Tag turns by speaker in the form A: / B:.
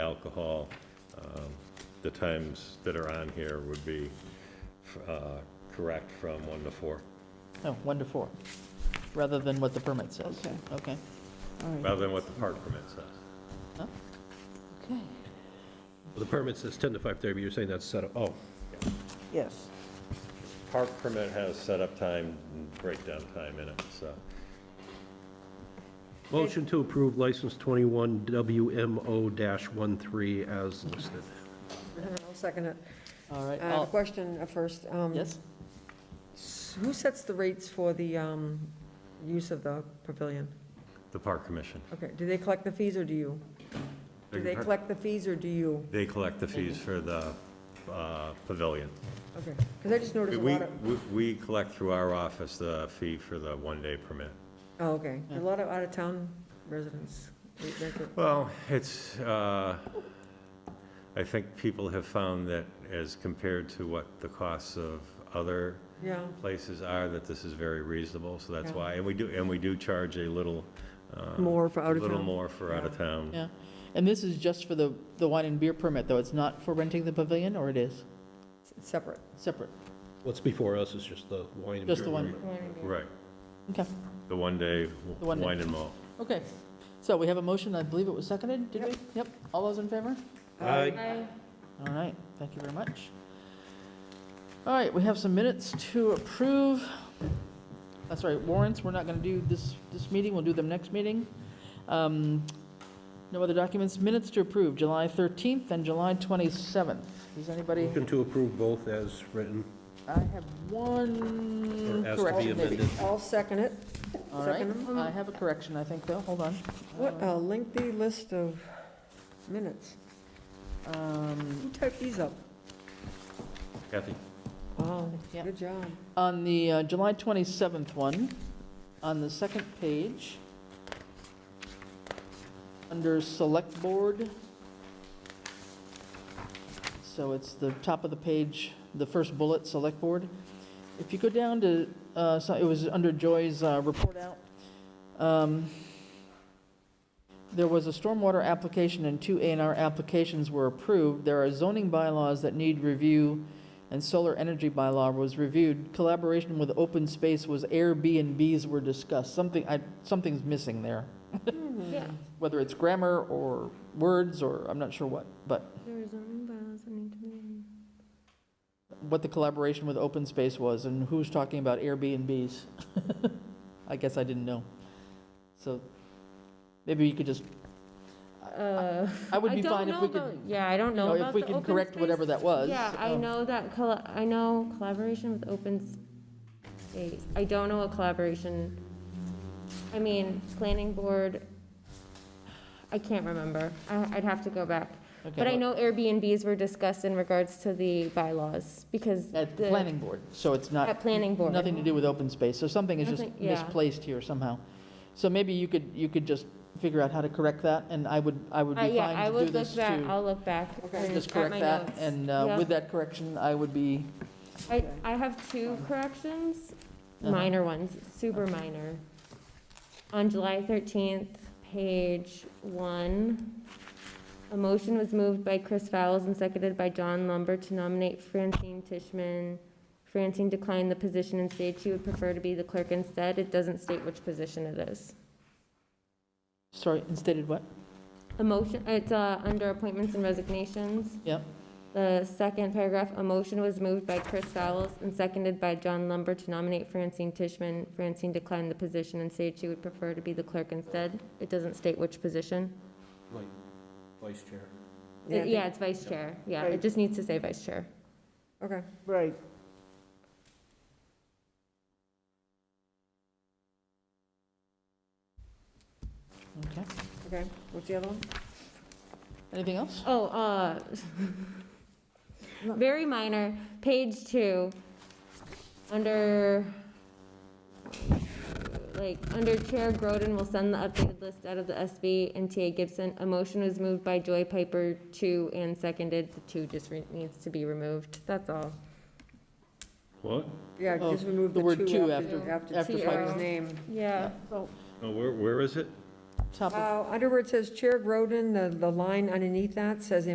A: alcohol. Um, The times that are on here would be uh, correct from one to four,
B: Oh, one to four, rather than what the permit says.
C: Okay.
B: Okay.
C: all right.
A: rather than what the park permit says.
C: Okay.
D: The permit says 10 to 5:30, but you're saying that's set up, oh,
C: Yes,
A: Park permit has setup time and breakdown time in it, so.
D: motion to approve license 21 WMO-13 as listed.
E: Uh-huh, I'll second it.
B: All right,
E: I have a
B: I'll-
E: question uh, first. Um,
B: yes?
E: s- Who sets the rates for the um, use of the pavilion?
A: The park commission.
E: Okay, do they collect the fees or do you? Do they collect the fees or do you?
A: They collect the fees for the uh, pavilion.
E: Okay, because I just noticed a
A: We,
E: lot of,
A: we- we collect through our office the fee for the one-day permit.
E: oh, okay, a lot of out-of-town residents. They- they could-
A: Well, it's, uh, I think people have found that as compared to what the costs of other
E: Yeah,
A: places are, that this is very reasonable, so that's
E: Yeah.
A: why, and we do, and we do charge a little. uh,
E: More for out
A: A
E: of
A: little
E: town.
A: more for out of town.
B: Yeah. And this is just for the, the wine and beer permit, though? It's not for renting the pavilion, or it is?
E: it's separate.
B: Separate?
D: What's before us is just the wine and beer.
B: Just the one?
A: Right,
B: Okay,
A: the one-day
B: The one day.
A: wine and malt.
B: okay. So we have a motion, I believe it was seconded, did we? Yep. All those in favor?
D: Aye.
B: All right, thank you very much. All right, we have some minutes to approve. That's right, warrants, we're not going to do this, this meeting, we'll do them next meeting. Um, No other documents, minutes to approve, July 13th and July 27th. Does anybody,
D: Motion to approve both as written,
B: I have one
D: or as to be
B: correction maybe.
D: amended.
E: I'll second it.
B: All right,
E: Second them.
B: I have a correction, I think, though, hold on.
E: What a lengthy list of minutes.
B: Um,
E: Who typed these up?
A: Kathy?
E: Wow,
B: Yeah.
E: good job.
B: On the uh, July 27th one, on the second page, under Select Board, so it's the top of the page, the first bullet, Select Board. If you go down to, uh, so it was under Joy's uh, report out, um, there was a stormwater application and two A and R applications were approved. There are zoning bylaws that need review and solar energy bylaw was reviewed. Collaboration with open space was Airbnbs were discussed. Something, I, something's missing there,
C: Yeah.
B: whether it's grammar or words or I'm not sure what, but
C: There are zoning bylaws that need to be.
B: what the collaboration with open space was and who's talking about Airbnbs. I guess I didn't know. So maybe you could just,
C: Uh,
B: I would
C: I
B: be
C: don't
B: fine if
C: know
B: we could,
C: about- Yeah, I don't
B: you know,
C: know about the
B: if we could
C: open
B: correct
C: space.
B: whatever that was.
C: Yeah, I
B: um,
C: know that, colla- I know collaboration with open space. I don't know what collaboration, I mean, planning board, I can't remember. I- I'd have to go back.
B: okay,
C: But I
B: well,
C: know Airbnbs were discussed in regards to the bylaws because.
B: At the planning board, so it's not.
C: At planning board.
B: Nothing to do with open space, so something is just
C: Nothing- yeah.
B: misplaced here somehow. So maybe you could, you could just figure out how to correct that, and I would, I would
C: Uh,
B: be
C: yeah, I
B: fine to
C: would
B: do
C: look
B: this
C: back,
B: to
C: I'll look back.
E: Okay.
C: and-
B: just
C: at
B: correct
C: my
B: that,
C: notes.
B: and uh,
C: Yeah.
B: with that correction, I would be,
C: I, I have two corrections,
B: Uh-huh.
C: minor ones, super minor. On July 13th, page one, a motion was moved by Chris Fowles and seconded by John Lumber to nominate Francine Tishman. Francine declined the position and stated she would prefer to be the clerk instead. It doesn't state which position it is.
B: sorry, instated what?
C: A motion, it's uh, under appointments and resignations.
B: Yep.
C: The second paragraph, a motion was moved by Chris Fowles and seconded by John Lumber to nominate Francine Tishman. Francine declined the position and said she would prefer to be the clerk instead. It doesn't state which position.
D: Like, vice chair.
E: Yeah, I
C: It-
E: think-
C: Yeah, it's vice chair. Yeah,
E: Right.
C: it just needs to say vice chair.
E: Okay,
B: Right. Okay,
E: okay. What's the other one?
B: anything else?
C: Oh, uh, very minor, page two, under, like, under Chair Groden will send the updated list out of the SB and TA Gibson. A motion was moved by Joy Piper, two, and seconded, the two just re- needs to be removed, that's all.
A: What?
E: Yeah,
B: Oh,
E: just remove
B: the
E: the
B: word two
E: two after,
C: after-
E: after
B: after
C: Uh,
E: Piper's
C: Piper's.
E: name.
C: Yeah.
B: So
A: No, Oh, where, where is it?
B: top of
E: Uh, Under where it says Chair Groden, the, the line underneath that says